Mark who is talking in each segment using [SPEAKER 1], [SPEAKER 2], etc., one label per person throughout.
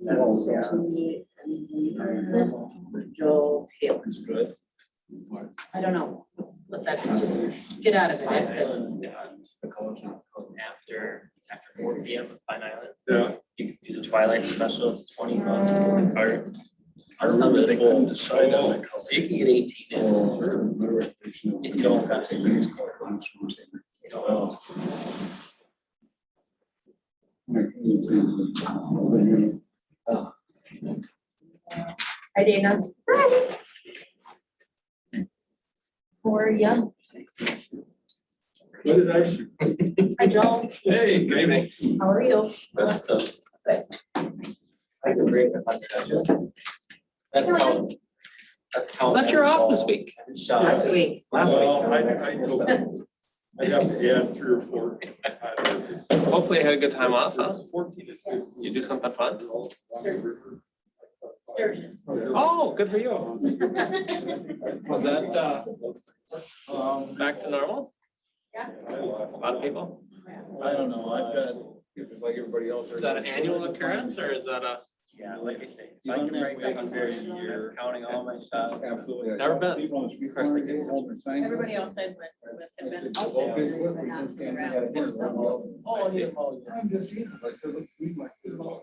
[SPEAKER 1] necessarily
[SPEAKER 2] This
[SPEAKER 1] Joel Taylor.
[SPEAKER 3] It's good.
[SPEAKER 2] I don't know, but that, just get out of it,
[SPEAKER 4] Pine
[SPEAKER 2] exit.
[SPEAKER 4] Island's gone
[SPEAKER 3] The college not.
[SPEAKER 4] after, after four P M at Pine Island.
[SPEAKER 3] Yeah.
[SPEAKER 4] You can do the Twilight Special, it's twenty bucks for the cart.
[SPEAKER 3] I remember they couldn't decide on the
[SPEAKER 4] So you can get eighteen in, if you don't cut it. You know,
[SPEAKER 2] Hi Dana. For you,
[SPEAKER 3] What is actually?
[SPEAKER 2] hi Joel,
[SPEAKER 3] Hey, good evening.
[SPEAKER 2] how are you?
[SPEAKER 4] That's the. I can bring a hundred of you. That's how. That's how.
[SPEAKER 5] But you're off this
[SPEAKER 4] Moneyball
[SPEAKER 5] week.
[SPEAKER 4] Shot.
[SPEAKER 2] Last week,
[SPEAKER 4] Last week.
[SPEAKER 3] Well, I- I
[SPEAKER 4] That's-
[SPEAKER 3] know. I have, yeah, three or four.
[SPEAKER 5] Hopefully you had a good time off, huh?
[SPEAKER 3] Fourteen. is
[SPEAKER 2] Yes.
[SPEAKER 3] good.
[SPEAKER 5] Did you do something fun?
[SPEAKER 2] Sturgis. Sturgis.
[SPEAKER 5] Oh, good for you. Was that, uh,
[SPEAKER 3] Um,
[SPEAKER 5] back to normal? A lot of
[SPEAKER 3] I
[SPEAKER 5] people?
[SPEAKER 3] don't know, I've got. If it's like everybody else.
[SPEAKER 5] Is that an annual occurrence or is that a,
[SPEAKER 4] Yeah, like I say, if
[SPEAKER 3] You
[SPEAKER 4] I
[SPEAKER 3] run
[SPEAKER 4] can
[SPEAKER 3] that
[SPEAKER 4] bring
[SPEAKER 3] way
[SPEAKER 4] a hundred,
[SPEAKER 3] for a year.
[SPEAKER 4] that's counting all my shots.
[SPEAKER 3] Absolutely.
[SPEAKER 5] Never been.
[SPEAKER 3] Of
[SPEAKER 4] course I can.
[SPEAKER 6] Everybody else I've lived with had been out there, but not to the ground.
[SPEAKER 3] Oh, yeah. I'm just, you know, I said, look, we might do it all.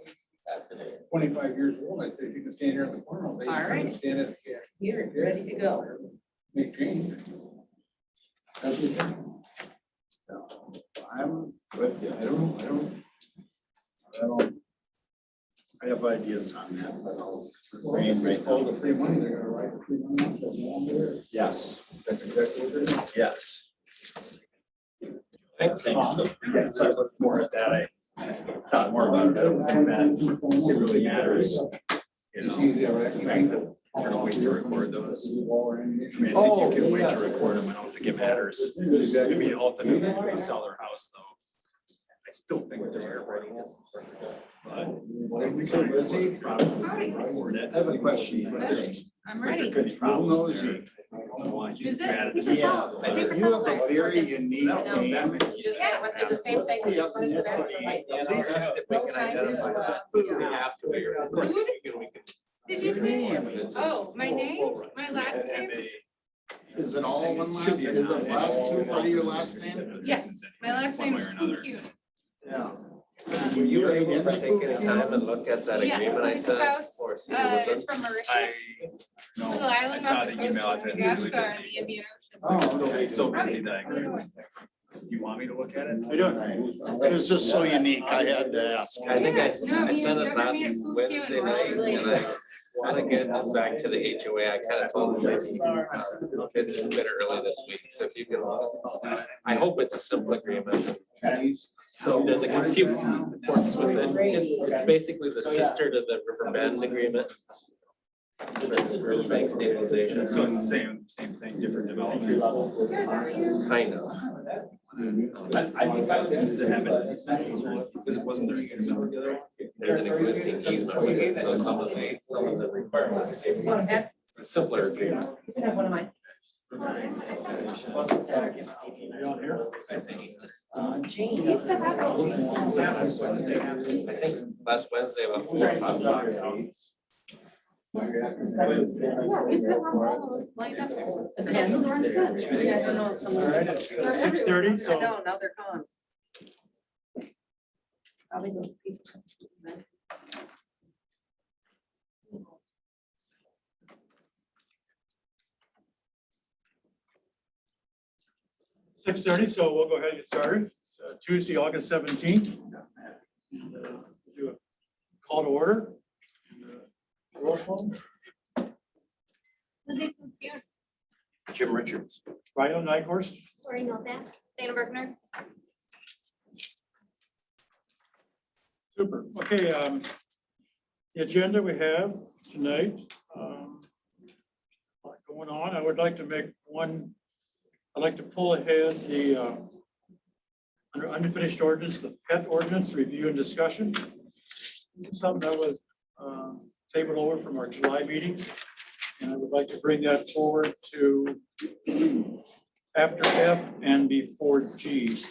[SPEAKER 3] Twenty-five years old, I said, if you can stand here in the corner all day. you
[SPEAKER 2] All right.
[SPEAKER 3] can Stand it. yeah,
[SPEAKER 2] You're ready to go.
[SPEAKER 3] Make change. That's what it is.
[SPEAKER 7] I'm, but yeah, I don't, I don't. I don't. I have ideas on that, but I'll. refrain right
[SPEAKER 3] All
[SPEAKER 7] now.
[SPEAKER 3] the free money, they're gonna write the free money. off that wall there.
[SPEAKER 7] Yes,
[SPEAKER 3] That's exactly what they're doing.
[SPEAKER 7] yes.
[SPEAKER 4] I think so.
[SPEAKER 7] Yeah, so I looked more at that, I thought more about it, I don't think that it really matters, you
[SPEAKER 3] It's
[SPEAKER 7] know.
[SPEAKER 3] easy, all right?
[SPEAKER 7] The fact that we're gonna wait to record those.
[SPEAKER 3] Wall or
[SPEAKER 7] I mean,
[SPEAKER 3] anything.
[SPEAKER 7] I
[SPEAKER 5] Oh,
[SPEAKER 7] think you can wait
[SPEAKER 5] yeah.
[SPEAKER 7] to record them, I don't think it matters. I
[SPEAKER 3] Exactly.
[SPEAKER 7] mean, ultimately, when they sell their house though. I still think they're recordable, but. Probably record it. I have a question.
[SPEAKER 6] I'm
[SPEAKER 7] They're
[SPEAKER 6] ready.
[SPEAKER 7] good problems there. I don't know why you
[SPEAKER 6] Is
[SPEAKER 7] just mad
[SPEAKER 6] it?
[SPEAKER 7] at
[SPEAKER 6] Is
[SPEAKER 7] them.
[SPEAKER 6] it all?
[SPEAKER 7] Yeah.
[SPEAKER 6] Paper
[SPEAKER 7] You have
[SPEAKER 6] towel?
[SPEAKER 7] a very unique name.
[SPEAKER 2] Just kind of went through the same thing.
[SPEAKER 7] What's the
[SPEAKER 2] Put it back in the
[SPEAKER 7] ethnicity?
[SPEAKER 2] light.
[SPEAKER 7] At least if we
[SPEAKER 2] No
[SPEAKER 7] can
[SPEAKER 2] time is,
[SPEAKER 7] identify
[SPEAKER 2] uh,
[SPEAKER 7] that.
[SPEAKER 2] yeah.
[SPEAKER 6] Oh, Did you say, oh, my name, my last name?
[SPEAKER 7] Is it all one last, is
[SPEAKER 3] be a
[SPEAKER 7] the
[SPEAKER 3] non-issue.
[SPEAKER 7] last two part of your last name?
[SPEAKER 6] Yes, my last
[SPEAKER 7] One
[SPEAKER 6] name
[SPEAKER 7] way
[SPEAKER 6] is
[SPEAKER 7] or another.
[SPEAKER 6] Fukun.
[SPEAKER 7] Yeah.
[SPEAKER 5] were you
[SPEAKER 7] Right,
[SPEAKER 5] able
[SPEAKER 7] and
[SPEAKER 5] to
[SPEAKER 7] the
[SPEAKER 5] take any
[SPEAKER 7] food
[SPEAKER 5] time and look at that
[SPEAKER 6] Yes,
[SPEAKER 5] agreement I
[SPEAKER 6] my
[SPEAKER 5] sent?
[SPEAKER 6] spouse,
[SPEAKER 5] or see
[SPEAKER 6] Uh,
[SPEAKER 5] what
[SPEAKER 6] is
[SPEAKER 5] was
[SPEAKER 6] from
[SPEAKER 8] I,
[SPEAKER 6] Mauritius,
[SPEAKER 7] No,
[SPEAKER 6] little
[SPEAKER 8] I
[SPEAKER 6] island
[SPEAKER 8] saw
[SPEAKER 6] off the
[SPEAKER 8] the
[SPEAKER 6] coast
[SPEAKER 8] email.
[SPEAKER 6] of
[SPEAKER 8] I've been really
[SPEAKER 6] Madagascar in
[SPEAKER 8] busy.
[SPEAKER 6] the Indian
[SPEAKER 7] Oh,
[SPEAKER 6] Ocean.
[SPEAKER 7] okay.
[SPEAKER 8] so, so
[SPEAKER 6] Right.
[SPEAKER 8] busy that I
[SPEAKER 6] How you
[SPEAKER 8] agree.
[SPEAKER 6] doing?
[SPEAKER 8] You want me to look at it?
[SPEAKER 3] I don't.
[SPEAKER 7] It's just so unique, I had to ask.
[SPEAKER 5] I think I, s-
[SPEAKER 6] Yeah, no,
[SPEAKER 5] I
[SPEAKER 6] me
[SPEAKER 5] sent
[SPEAKER 6] and
[SPEAKER 5] it
[SPEAKER 6] Governor
[SPEAKER 5] last
[SPEAKER 6] Sue Kim
[SPEAKER 5] Wednesday
[SPEAKER 6] were all
[SPEAKER 5] night and I
[SPEAKER 6] related.
[SPEAKER 5] wanna get this back to the HOA. I kinda told them maybe you can, uh, look at it a bit early this week. So if you can, I hope it's a simple agreement. So there's a few points with it. It's, it's basically the sister to the River Bend Agreement. The River Bank stabilization,
[SPEAKER 8] So it's same, same thing, different development.
[SPEAKER 6] Good, how are you?
[SPEAKER 5] kind of.
[SPEAKER 8] I, I think I would use to have it, because it wasn't during its number the other.
[SPEAKER 5] There's an existing easement, with it, so some of the, some of the requirements, it's
[SPEAKER 2] That's,
[SPEAKER 5] a simpler agreement.
[SPEAKER 2] you can have one of mine.
[SPEAKER 5] I think,
[SPEAKER 2] Uh, Jane.
[SPEAKER 6] Keep the apple.
[SPEAKER 5] I think last Wednesday about four o'clock.
[SPEAKER 6] Is the one almost lined up there?
[SPEAKER 2] The pens. Yeah, I don't know, someone.
[SPEAKER 3] Six thirty,
[SPEAKER 2] I know, now they're gone. Probably those people.
[SPEAKER 3] Six thirty, so we'll go ahead and get started. It's uh, Tuesday, August seventeenth. uh, Do a call to order. And, uh, Roll call.
[SPEAKER 6] Lizzie Fukun,
[SPEAKER 7] Jim Richards.
[SPEAKER 3] Ryan Nyhorst.
[SPEAKER 6] Lori Novak, Dana Bergner.
[SPEAKER 3] Super. Okay, um, the agenda we have tonight, um, lot going on. I would like to make one, I'd like to pull ahead the, uh, under unfinished ordinance, the pet ordinance review and discussion. This is Something that was, um, tabled over from our July meeting. And I would like to bring that forward to after F and before G.